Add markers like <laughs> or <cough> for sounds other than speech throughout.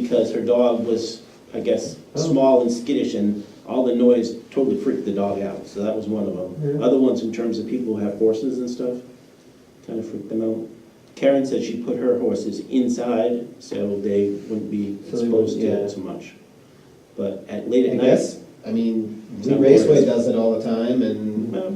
because her dog was, I guess, Oh. small and skittish, and all the noise totally freaked the dog out, so that was one of them. Yeah. Other ones, in terms of people who have horses and stuff, kind of freaked them out. Karen said she put her horses inside, so they wouldn't be So they wouldn't- exposed to yeah. it too much. But at, late I at night, guess, I mean, Blue Some Raceway words. does it all the time, and well,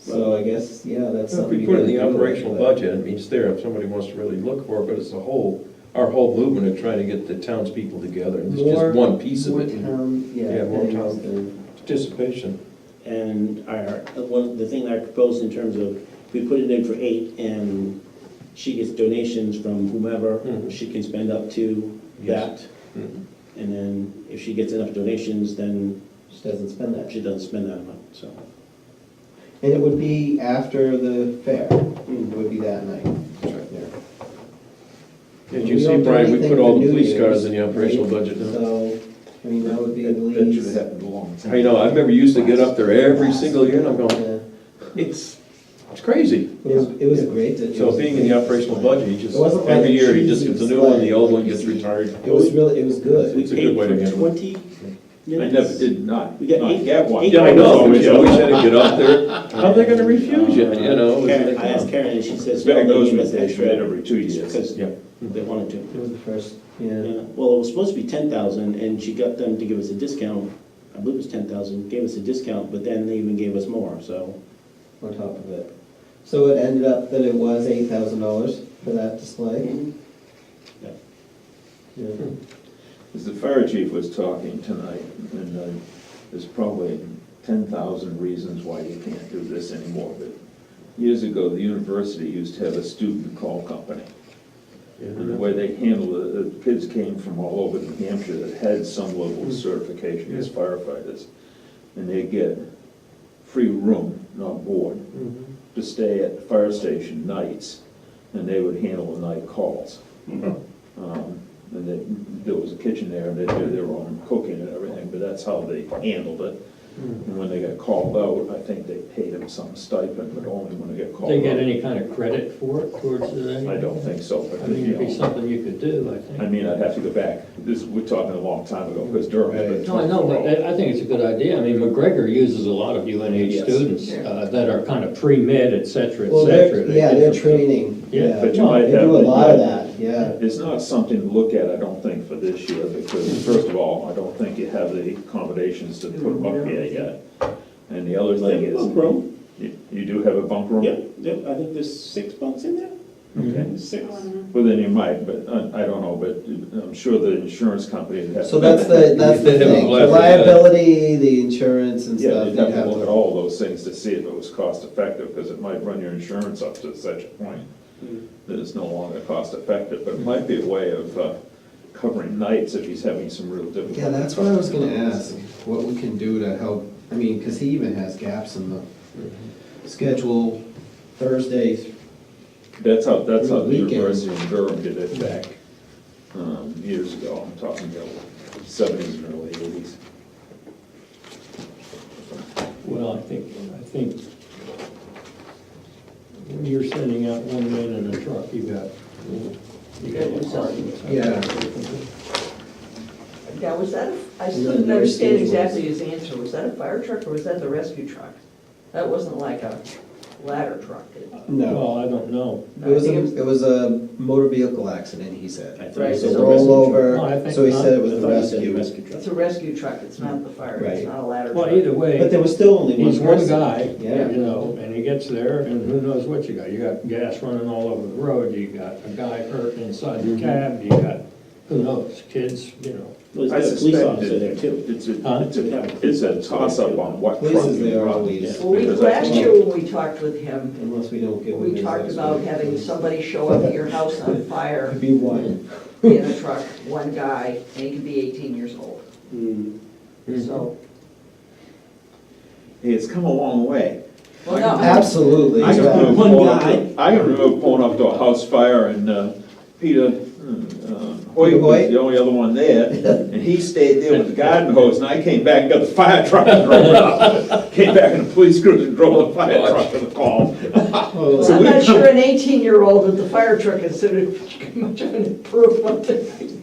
so I guess, yeah, that's If something. we you put it in the gotta do, operational but- budget, I mean, it's there if somebody wants to really look for it, but it's a whole, our whole movement of trying to get the townspeople together, and it's More- just one piece of More it. and town, yeah. Yeah, more things town. than- Participation. And our, one, the thing that I proposed in terms of, we put it in for eight, and she gets donations from whomever, Mm-hmm. Mhm. she can spend up to Yes. that. Hmm. Mhm. And then if she gets enough donations, then She doesn't spend that. she doesn't spend that amount, so. And it would be after the fair, it Hmm. mm. would be that night. Yeah. As We you see, don't do Brian, we anything put all for the New police cars Year's, in the operational right? budget now. So, I mean, that would be at That should have least. happened a long time. I know, I remember you used to get up there every single year, and I'm going, Yeah. it's, it's crazy. It was, it was a great. it So was being in the great. operational budget, you It wasn't just, like every year, cheesy you just get the new one, the old one gets slide. retired. It was really, it was good. We It's a paid good way to for handle it. Twenty I minutes. never did not, We got not eight- get one. eight Yeah, I know, dollars. you always had to get up <laughs> there, how are they gonna refuse you, you know? it's Karen, like, uh, I asked Karen, and she says, Back no, they those gave us days, extra. we did every two years. Because Yeah. they wanted to. It was the first, yeah. Yeah, Well, it was supposed to be ten thousand, and she got them to give us a discount, I believe it was ten thousand, gave us a discount, but then they even gave us more, so. on top of it. So it ended up that it was eight thousand dollars for that display. Yeah. As the fire chief was talking tonight, and uh, there's probably ten thousand reasons why you can't do this anymore, but years ago, the university used to have a student call company. And the Mm-hmm. Yeah. way they handled it, the kids came from all over New Hampshire that had some Mm-hmm. level of certification as firefighters. And they get free room, not board, to stay at the fire station nights, and they would handle the night calls. Mm-hmm. Um, And they, there was a kitchen there, and they did their own cooking and everything, but that's how they handled it. Mm. And when they got called out, I think they paid them some stipend, but only when they got called out. They get any kind of credit for it towards the, I don't think so, but. I mean, you it'd be know. something you could do, I I think. mean, I'd have to go back, this, we're talking a long time ago, because Durham has been. No, I know, but I- I think it's a good idea. I mean, McGregor uses a lot of UNH Yes. students uh, that are kind of pre-med, et cetera, et Well, they're, cetera. yeah, get they're them- training, Yeah, yeah. but you No, might They have do a the- lot of that, yeah. It's not something to look at, I don't think, for this year, because first of all, I don't think you have the accommodations to put them up here yet. And the other thing is, Room? you- you do have a bunk room? uh, Yeah, yeah, I think there's six bunks in there, Okay, six. well, then you might, but uh, I, I don't know, but I'm sure the insurance company would have. So that's the, that's the They have a thing, the blast with that. liability, the insurance and Yeah, stuff, you'd you'd have to have look at to. all those things to see if it was cost effective, because it might run your insurance up to such a point Mm-hmm. that it's no longer cost effective, but it might be a way of uh, covering nights if he's having some real difficulty. Yeah, that's what I was gonna ask, what we can do to help, I mean, cause he even has gaps in the schedule Thursdays. That's how, that's how the Weekend. University of Durham did it back um, years ago, I'm talking about seventies and early eighties. Well, I think, I think when you're sending out one man in a truck, you got, you got a party. Yeah. Now, was that, a- I Yeah, still the didn't understand rescue was- exactly his answer. Was that a fire truck or was that the rescue truck? That wasn't like a ladder truck. It- No, Well, I don't know. it was, a- it was a motor vehicle accident, he said. I think Right, it's so a roll No, Oh, I over, think so he not. said it was rescue truck. I the thought you said rescue. rescue truck. It's a rescue truck, it's not the fire, Right. it's not a ladder truck. Well, either way. But there was still only one He's one person. guy, Yeah. you know, and he gets there, and who knows what you got, you got gas running all over the road, you got a guy hurt inside Mm-hmm. the cab, you got, who knows, kids, you know. Well, I there's a police suspect officer it- there too. It's Huh? a, it's a, it's a toss-up on what truck Police is you there run. always, Well, we, Because I- last year when we talked with him, unless we don't give them. we his talked last about one. having somebody show up at your house on fire Could be <laughs> one. in a truck, one guy, and he could be eighteen years old. Mm. Mm-hmm. So, Hey, it's come a long way. well, no. Absolutely. I can yeah. remember One pulling up guy. to- I can remember pulling up to a house fire and uh, Peter hmm, uh, Hoyt Peter was Hoyt? the only other one there, and he stayed there with the garden hose, and I came back and got the fire truck and drove <laughs> it up. Came back in the police cruiser and drove the fire truck to the call. Oh, Well, I'm not sure an eighteen-year-old with the fire truck is sort of much of an improvement.